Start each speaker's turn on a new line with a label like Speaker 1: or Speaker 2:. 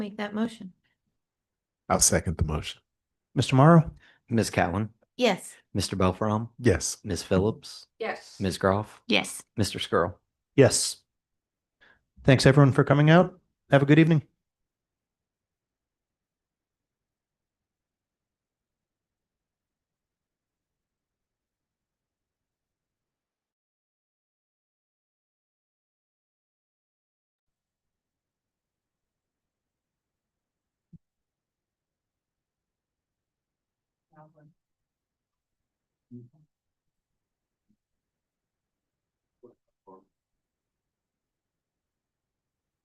Speaker 1: Make that motion.
Speaker 2: I'll second the motion.
Speaker 3: Mr. Morrow?
Speaker 4: Ms. Cowan,
Speaker 1: Yes.
Speaker 4: Mr. Belfrom,
Speaker 2: Yes.
Speaker 4: Ms. Phillips,
Speaker 5: Yes.
Speaker 4: Ms. Groff,
Speaker 1: Yes.
Speaker 4: Mr. Skrull.
Speaker 3: Yes. Thanks everyone for coming out. Have a good evening.